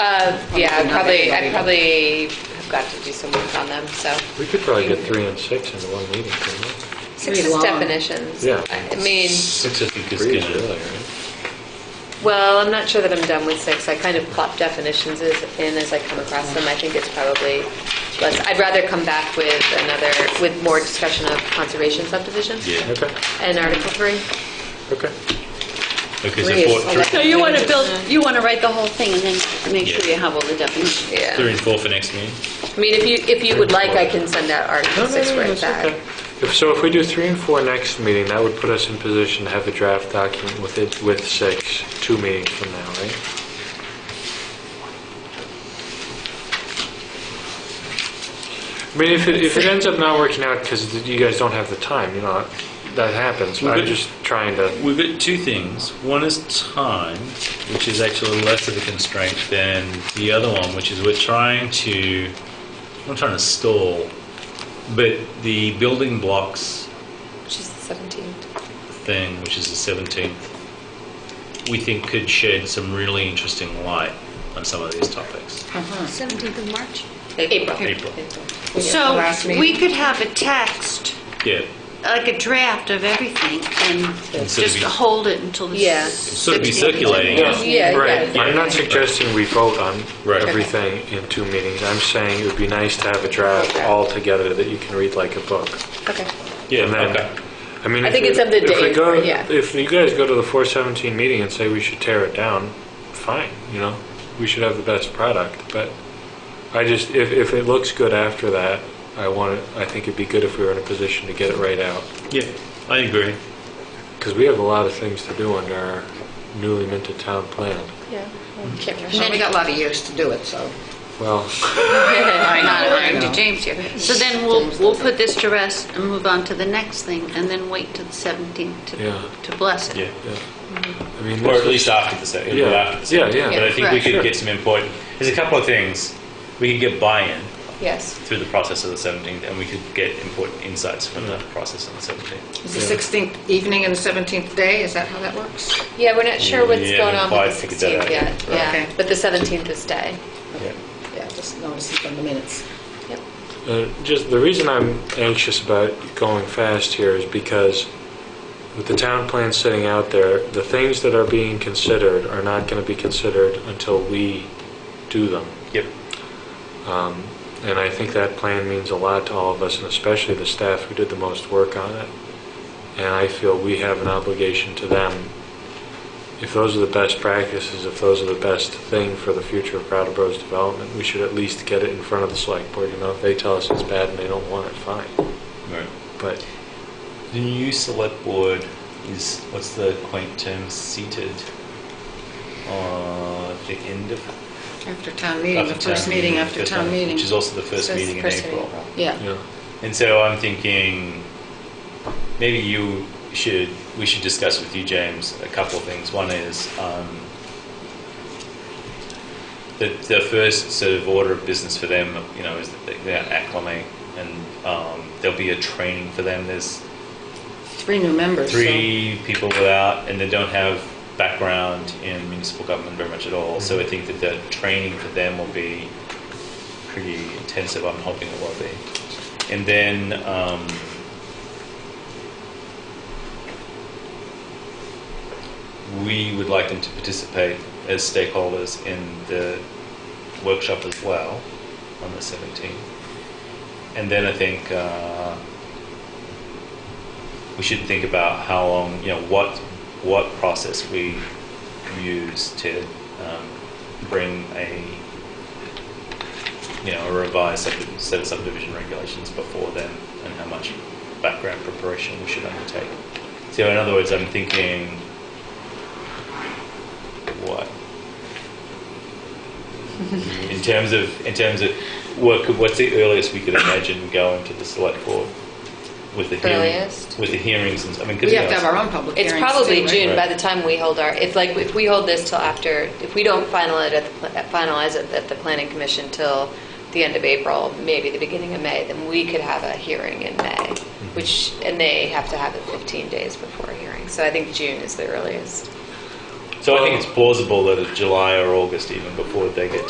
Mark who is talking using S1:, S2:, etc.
S1: Uh, yeah, I'd probably, I'd probably have got to do some work on them, so.
S2: We could probably get three and six into one meeting, couldn't we?
S1: Six
S3: Pretty
S1: is
S3: long.
S1: definitions.
S2: Yeah.
S1: I mean,
S4: Six, I think, is
S2: Three is
S4: good.
S2: really, right?
S1: well, I'm not sure that I'm done with six. I kind of plop definitions as- in as I come across them. I think it's probably less, I'd rather come back with another, with more discussion of conservation subdivisions
S4: Yeah.
S2: Okay,
S1: and Article Three.
S2: okay.
S4: Okay,
S1: Three
S4: so
S1: is
S4: four,
S3: So
S4: three,
S3: you want to build, you want to write the whole thing and then make sure you have all the definitions.
S1: Yeah.
S4: three and four for next meeting?
S1: I mean, if you, if you would like, I can send out Article
S2: No, no,
S1: Six
S2: no,
S1: right
S2: that's
S1: back.
S2: okay. If- So if we do three and four next meeting, that would put us in position to have a draft document with it, with six, two meetings from now, right? I mean, if it, if it ends up not working out because you guys don't have the time, you know, that happens.
S4: Well,
S2: I'm
S4: good.
S2: just trying to,
S4: We've got two things. One is time, which is actually less of a constraint than the other one, which is we're trying to, I'm not trying to stall, but the building blocks
S1: She's seventeen.
S4: thing, which is the 17th, we think could shed some really interesting light on some of these topics.
S5: 17th of March?
S1: April.
S4: April.
S3: So we could have a text,
S4: Yeah.
S3: like a draft of everything and
S4: Instead of
S3: just
S4: you-
S3: hold it until the.
S1: Yeah.
S4: Sort of be circulating.
S2: Yeah.
S1: Yeah,
S2: right.
S1: yeah.
S2: I'm not suggesting we vote on
S4: Right.
S2: everything in two meetings. I'm saying it would be nice to have a draft all together that you can read like a book.
S1: Okay.
S4: Yeah,
S2: And then-
S4: okay.
S2: I mean,
S1: I
S2: if
S1: think
S2: we-
S1: it's up to
S2: if we
S1: Dave,
S2: go-
S1: yeah.
S2: If you guys go to the 417 meeting and say we should tear it down, fine, you know, we should have the best product. But I just, if, if it looks good after that, I want it, I think it'd be good if we were in a position to get it right out.
S4: Yeah, I agree.
S2: Because we have a lot of things to do under our newly minted town plan.
S1: Yeah. Can't rush.
S5: We only got a lot of years to do it, so.
S2: Well,
S3: I'm not according to
S5: know.
S3: James here. So then we'll, we'll put this to rest and move on to the next thing and then wait till the 17th
S2: Yeah.
S3: to, to bless it.
S4: Yeah.
S2: yeah. I mean,
S4: Or
S2: this
S4: at least after the second.
S2: Yeah.
S4: After the second.
S2: Yeah, yeah.
S4: But I think
S3: Yeah,
S4: we
S3: right,
S4: could
S3: sure.
S4: get some input. There's a couple of things. We could get buy-in
S1: Yes.
S4: through the process of the 17th, and we could get important insights from the process of the 17th.
S5: Is the 16th evening and the 17th day, is that how that works?
S1: Yeah, we're not sure what's
S4: Yeah,
S1: going on
S4: implied
S1: with the
S4: figure that out
S1: 16th yet.
S4: yet. Right.
S1: Yeah,
S5: Okay.
S1: but the 17th is day.
S4: Yeah.
S5: Yeah, just notice it on the minutes.
S1: Yep.
S2: Uh, Just, the reason I'm anxious about going fast here is because with the town plan sitting out there, the things that are being considered are not going to be considered until we do them.
S4: Yep.
S2: Um, And I think that plan means a lot to all of us, and especially the staff who did the most work on it. And I feel we have an obligation to them. If those are the best practices, if those are the best thing for the future of Brattleboro's development, we should at least get it in front of the select board. You know, if they tell us it's bad and they don't want it, fine.
S4: Right.
S2: But
S4: The new select board is, what's the quaint term, seated uh, at the end of
S5: After town meeting, the
S4: after town
S5: first meeting after
S4: first
S5: town meeting.
S4: Which is also the first
S1: So it's
S4: meeting in
S1: first meeting
S4: April.
S5: Yeah.
S2: Yeah.
S4: And so I'm thinking, maybe you should, we should discuss with you, James, a couple of things. One is um, the, the first sort of order of business for them, you know, is that they- they're acclimate and um, there'll be a training for them. There's
S5: Three new members, so.
S4: three people without, and they don't have background in municipal government very much at all. So
S5: Mm-hmm.
S4: I think that the training for them will be pretty intensive. I'm hoping it will be. And then um, we would like them to participate as stakeholders in the workshop as well on the 17th. And then I think. Uh, we should think about how long, you know, what, what process we use to um, bring a, you know, a revised sub- set of subdivision regulations before then, and how much background preparation we should undertake. So in other words, I'm thinking, what? In terms of, in terms of, what could, what's the earliest we could imagine going to the select board with the hearings?
S1: Earliest?
S4: With the hearings and, s- I mean, 'cause,
S5: We
S4: you
S5: have to
S4: know,
S5: have our own public
S1: It's
S5: hearings.
S1: probably
S5: too, right?
S1: June by
S4: Right.
S1: the time we hold our, it's like, if we hold this till after, if we don't final it at, the pl- finalize it at the planning commission till the end of April, maybe the beginning of May, then we could have a hearing in May, which, and they have to have it 15 days before a hearing. So I think June is the earliest.
S4: So I think it's plausible that it's July or August even before they get to